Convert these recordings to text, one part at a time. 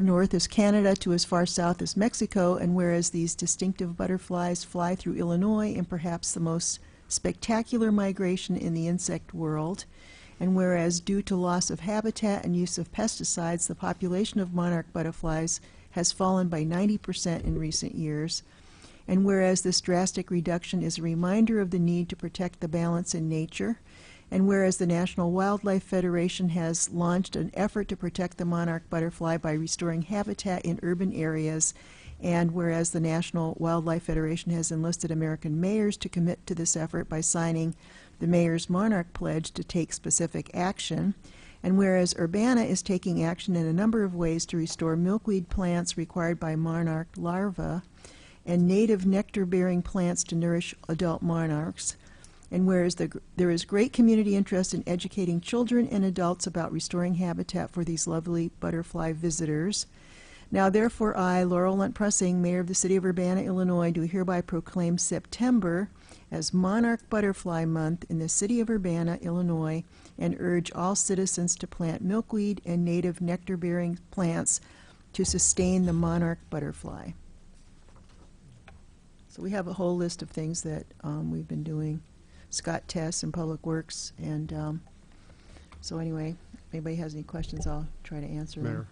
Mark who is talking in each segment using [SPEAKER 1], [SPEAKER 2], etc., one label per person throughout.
[SPEAKER 1] north as Canada to as far south as Mexico, and whereas these distinctive butterflies fly through Illinois in perhaps the most spectacular migration in the insect world, and whereas due to loss of habitat and use of pesticides, the population of monarch butterflies has fallen by 90% in recent years, and whereas this drastic reduction is a reminder of the need to protect the balance in nature, and whereas the National Wildlife Federation has launched an effort to protect the monarch butterfly by restoring habitat in urban areas, and whereas the National Wildlife Federation has enlisted American mayors to commit to this effort by signing the Mayor's Monarch Pledge to take specific action, and whereas Urbana is taking action in a number of ways to restore milkweed plants required by monarch larvae and native nectar-bearing plants to nourish adult monarchs, and whereas the, there is great community interest in educating children and adults about restoring habitat for these lovely butterfly visitors. Now, therefore, I, Laurel Lunt Pressing, Mayor of the City of Urbana, Illinois, do hereby proclaim September as Monarch Butterfly Month in the City of Urbana, Illinois, and urge all citizens to plant milkweed and native nectar bearing plants to sustain the monarch butterfly. So, we have a whole list of things that um, we've been doing. Scott Tess in Public Works. And um, so anyway, if anybody has any questions, I'll try to answer them.
[SPEAKER 2] Mayor.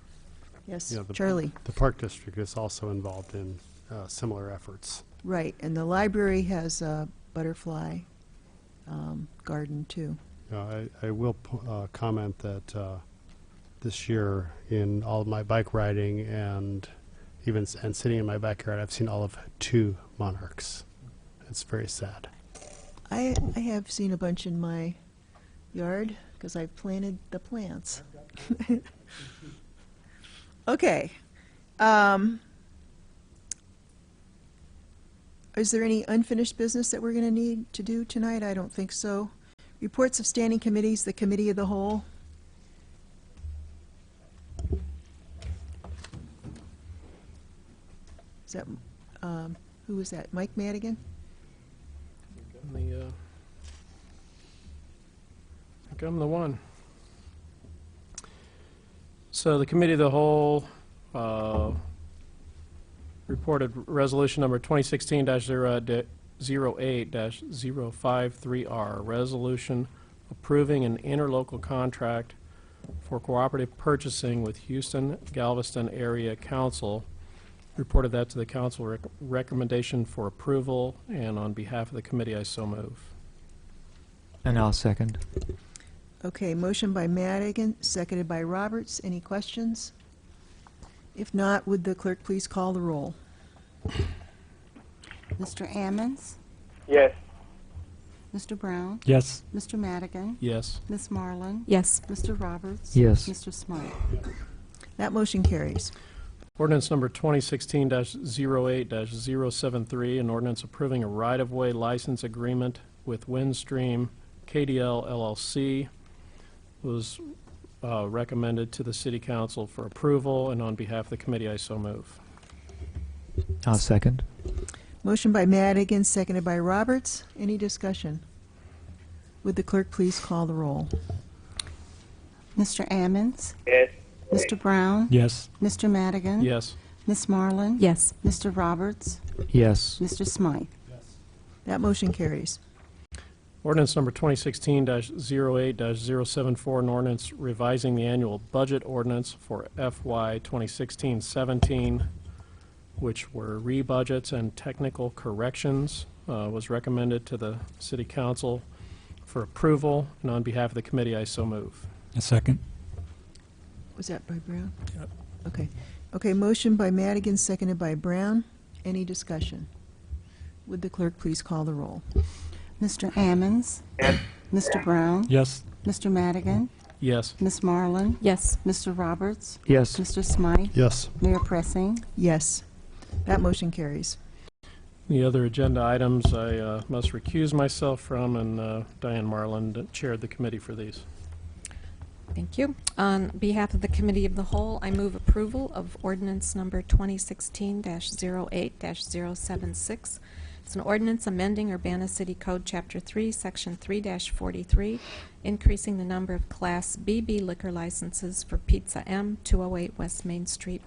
[SPEAKER 1] Yes,
[SPEAKER 2] Yeah, the-
[SPEAKER 1] Charlie.
[SPEAKER 2] The Park District is also involved in uh, similar efforts.
[SPEAKER 1] Right, and the library has a butterfly um, garden too.
[SPEAKER 2] Uh, I I will po- uh, comment that uh, this year, in all of my bike riding and even, s- and sitting in my backyard, I've seen all of two monarchs. It's very sad.
[SPEAKER 1] I, I have seen a bunch in my yard because I've planted the plants. okay. Um, is there any unfinished business that we're going to need to do tonight? I don't think so. Reports of standing committees, the committee of the whole. Is that, um, who was that? Mike Madigan?
[SPEAKER 3] I'm the, uh, I think I'm the one. So the Committee of the Whole uh, reported Resolution Number uh, 2016-08-053R, Resolution approving an interlocal contract for cooperative purchasing with Houston Galveston Area Council reported that to the council rec- recommendation for approval, and on behalf of the committee, I so move.
[SPEAKER 4] And I'll second.
[SPEAKER 1] Okay, motion by Madigan, seconded by Roberts. Any questions? If not, would the clerk please call the roll?
[SPEAKER 5] Mr. Ammons,
[SPEAKER 6] Yes.
[SPEAKER 5] Mr. Brown,
[SPEAKER 4] Yes.
[SPEAKER 5] Mr. Madigan,
[SPEAKER 3] Yes.
[SPEAKER 5] Miss Marlin,
[SPEAKER 7] Yes.
[SPEAKER 5] Mr. Roberts.
[SPEAKER 4] Yes.
[SPEAKER 5] Mr. Smythe.
[SPEAKER 1] That motion carries.
[SPEAKER 3] Ordinance number 2016-08-073, an ordinance approving a right-of-way license agreement with Windstream KDL LLC, was uh, recommended to the city council for approval, and on behalf of the committee, I so move.
[SPEAKER 4] I'll second.
[SPEAKER 1] Motion by Madigan, seconded by Roberts. Any discussion? Would the clerk please call the roll?
[SPEAKER 5] Mr. Ammons,
[SPEAKER 6] Yes.
[SPEAKER 5] Mr. Brown,
[SPEAKER 4] Yes.
[SPEAKER 5] Mr. Madigan.
[SPEAKER 3] Yes.
[SPEAKER 5] Miss Marlin.
[SPEAKER 7] Yes.
[SPEAKER 5] Mr. Roberts,
[SPEAKER 4] Yes.
[SPEAKER 5] Mr. Smythe.
[SPEAKER 1] That motion carries.
[SPEAKER 3] Ordinance number 2016-08-074, an ordinance revising the annual budget ordinance for FY 2016-17, which were rebudgets and technical corrections, uh, was recommended to the city council for approval, and on behalf of the committee, I so move.
[SPEAKER 4] A second.
[SPEAKER 1] Was that by Brown? Okay. Okay, motion by Madigan, seconded by Brown. Any discussion? Would the clerk please call the roll?
[SPEAKER 5] Mr. Ammons. Mr. Brown,
[SPEAKER 4] Yes.
[SPEAKER 5] Mr. Madigan,
[SPEAKER 3] Yes.
[SPEAKER 5] Miss Marlin,
[SPEAKER 7] Yes.
[SPEAKER 5] Mr. Roberts,
[SPEAKER 4] Yes.
[SPEAKER 5] Mr. Smythe,
[SPEAKER 2] Yes.
[SPEAKER 5] Mayor Pressing.
[SPEAKER 1] Yes. That motion carries.
[SPEAKER 3] The other agenda items I uh, must recuse myself from, and uh, Diane Marlin chaired the committee for these.
[SPEAKER 7] Thank you. On behalf of the Committee of the Whole, I move approval of ordinance number 2016-08-076. It's an ordinance amending Urbana City Code, Chapter 3, Section 3-43, increasing the number of Class BB liquor licenses for Pizza M, 208 West Main Street,